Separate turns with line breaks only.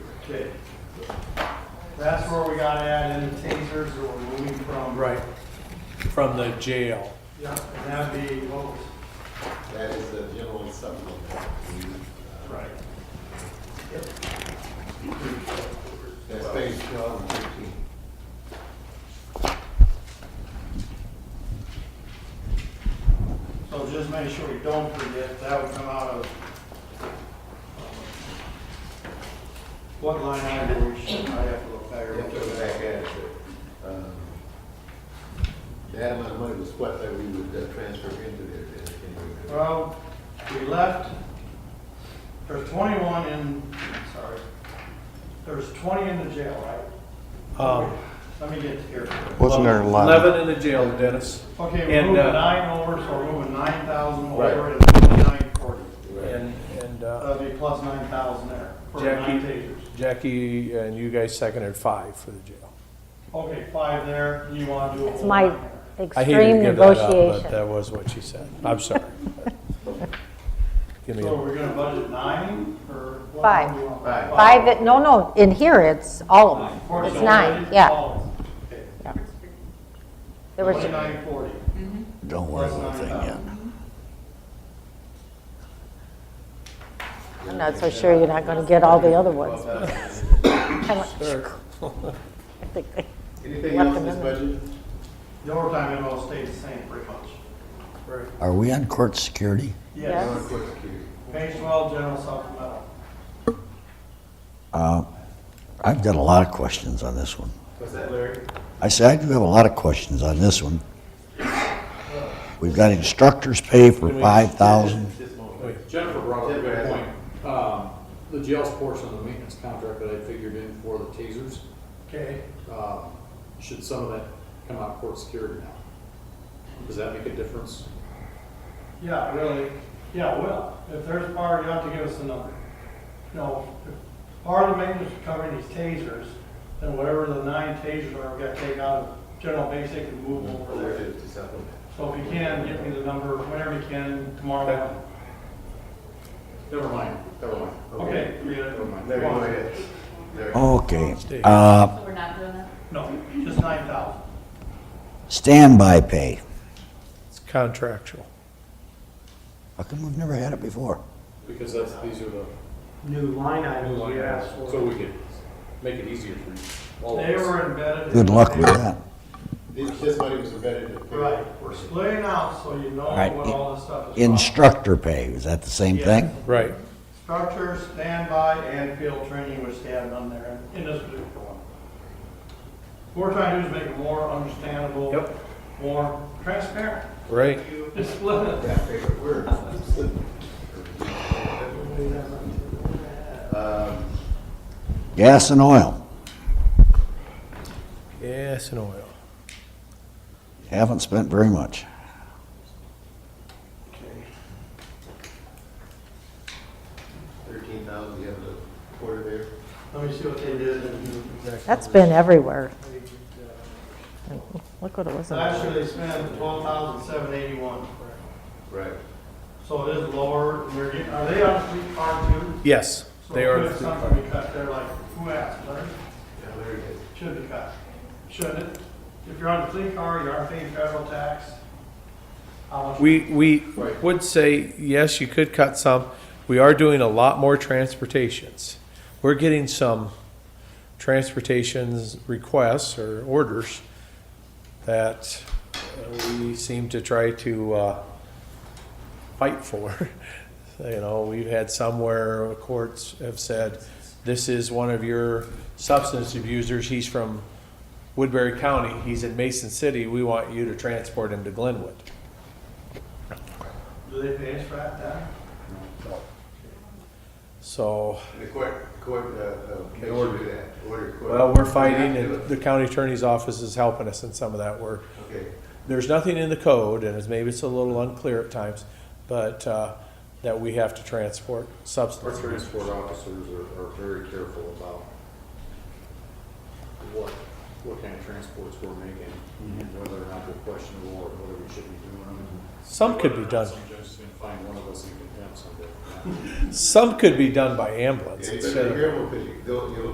Okay. That's where we gotta add in the tasers that we're moving from.
Right, from the jail.
Yeah, and that'd be what was,
That is the general supplemental.
right.
That's page twelve and thirteen.
So just make sure we don't forget, that would come out of. uh, What line item do we should, I have to look back.
You have to go back at it, but, um, that amount of money was what that we would uh, transfer into there. then, can you-
Well, we left, there's twenty-one in, sorry, there's twenty in the jail, right?
Um,
Let me get to here.
Wasn't there eleven?
Eleven in the jail, Dennis,
Okay, we're
And,
moving
uh,
nine over, so we're moving nine thousand
Right.
over and fifty-nine forty.
Right.
and, and uh,
That'd be plus nine thousand there for
Jackie.
nine tasers.
Jackie and you guys seconded five for the jail.
Okay, five there, you wanna do a
It's
whole
my
nine there.
I hated to give
extreme
that up, but uh,
negotiation.
that was what she said. I'm sorry. Give me,
So
a-
we're gonna budget nine or? what
Five.
do you want?
Five.
Five, that- no, no, in here, it's all of
Of course,
them. It's
so
nine,
budget
yeah.
all of them. Okay,
There was,
Twenty-nine forty.
Don't worry about a thing yet.
I'm not so sure you're not gonna get all the other ones. I went,
Sure.
I think they-
Anything
Left
else in this budget?
The overtime it all stays the same pretty much.
Are we on court security?
Yes.
On court security.
Page twelve, general supplemental.
I've got a lot of questions on this one.
What's that, Larry?
I say I do have a lot of questions on this one. We've got instructors pay for five thousand.
Just a moment.
Wait, Jennifer brought up a good point. Um, The jail's portion of the maintenance contract that I figured in for the tasers,
Okay,
um, should some of that come out of court security now? Does that make a difference?
yeah, really, yeah, well, if there's power, you have to give us a number. No, if part of the maintenance is covering these tasers, then whatever the nine tasers are, we gotta take out of general basic and move them over there.
Related to supplement.
So if you can, get me the number whenever you can tomorrow. morning.
Never mind, never mind.
Okay, we got
Never
it.
mind.
Larry, go ahead. Larry.
Okay, uh,
So we're not doing that?
no, just nine thousand.
standby pay.
it's contractual.
How come we've never had it before?
Because that's, these are the
new line
new
items
line
we asked
items, so
for.
we could make it easier for all of
They
us.
were embedded. in-
Good luck with that.
This, this money was embedded in. the-
Right, we're splitting out so you know
Alright,
what all this stuff is. about.
Instructor pay, is that the same thing?
Right,
Structure, standby, and field training was stand on there in this particular one. What we're trying to do is make it more understandable.
Yep.
More transparent.
right.
Just split it.
That favorite word. Um,
Gas and oil,
Yes, and oil.
haven't spent very much.
thirteen thousand, you have the quarter there.
Let me see what they did in.
That's been everywhere. Look what it was. in the-
Last year they spent twelve thousand seven eighty-one.
Right.
So it is lower, and we're getting, are they on three car two?
Yes,
So
they
could
are.
Something we cut there, like, who asked, right?
Yeah, there it is.
Should be cut. Shouldn't it? If you're on a fleet car, you aren't paying federal tax. How much?
We, we
Right.
would say, yes, you could cut some. We are doing a lot more transportations. We're getting some transportations requests or orders that we seem to try to, uh, fight for. You know, we've had somewhere uh, courts have said, this is one of your substance abusers, he's from Woodbury County, he's in Mason City, we want you to transport him to Glenwood.
Do they pay us for that, then?
So,
The court, court, uh, uh, make sure you do that, order court.
well, we're fighting
You
and
have to do
the county attorney's office is helping us in some of that work.
it. Okay,
There's nothing in the code, and it's, maybe it's a little unclear at times, but, uh, that we have to transport
Our
substance.
transport officers are, are very careful about what, what kind of transports we're making, and whether or not they're questionable, or whether we should be doing them. and
Some could be done,
whether or not Some judge is gonna find one of us in contempt someday.
some could be done by ambulance
yeah, you
instead
better
of
be careful, because you go, you'll